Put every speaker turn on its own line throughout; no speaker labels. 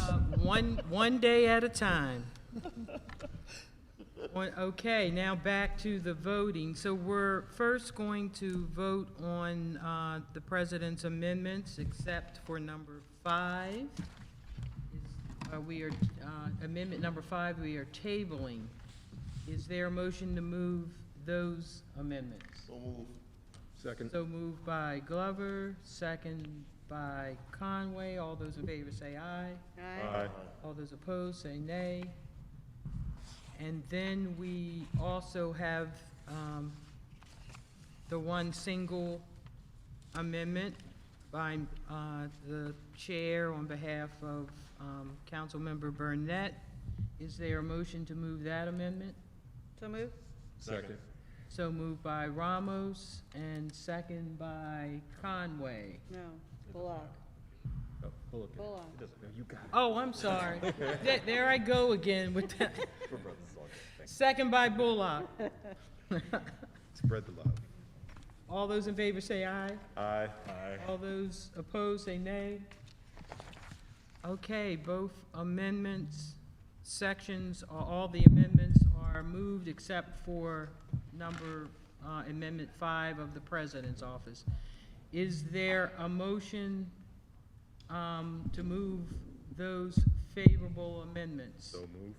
Uh, One, one day at a time. One- Okay, now back to the voting. So we're first going to vote on uh, the president's amendments, except for number five. Is- uh, We are, uh, amendment number five, we are tabling. Is there a motion to move those amendments?
Second.
So moved by Glover, second by Conway. All those in favor say aye.
Aye.
All those opposed say nay. And then we also have um, the one single amendment by uh, the chair on behalf of um, Councilmember Burnett. Is there a motion to move that amendment?
So move?
Second.
So moved by Ramos and second by Conway.
No. Bullock.
Oh, Bullock. It
Bullock.
doesn't matter. You got it.
Oh, I'm sorry. Th- There I go again with that. Second by Bullock.
Spread the love.
All those in favor say aye.
Aye. Aye.
All those opposed say nay. Okay, both amendments, sections, a- all the amendments are moved except for number, uh, Amendment 5 of the President's Office. Is there a motion um, to move those favorable amendments?
So moved.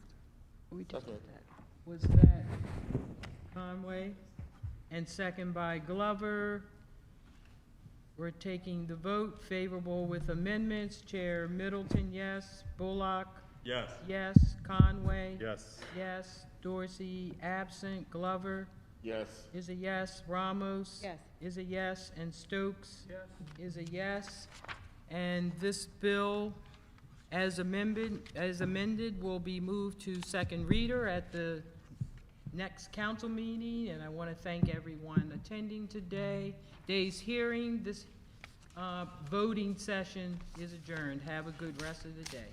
We just did that.
Was that Conway? And second by Glover. We're taking the vote favorable with amendments. Chair Middleton, yes. Bullock,
Yes.
yes. Conway?
Yes.
Yes. Dorsey, absent. Glover
Yes.
is a yes. Ramos?
Yes.
Is a yes. And Stokes? Is a yes. And this bill, as amended, as amended, will be moved to second reader at the next council meeting. And I want to thank everyone attending today. Day's hearing, this uh, voting session is adjourned. Have a good rest of the day.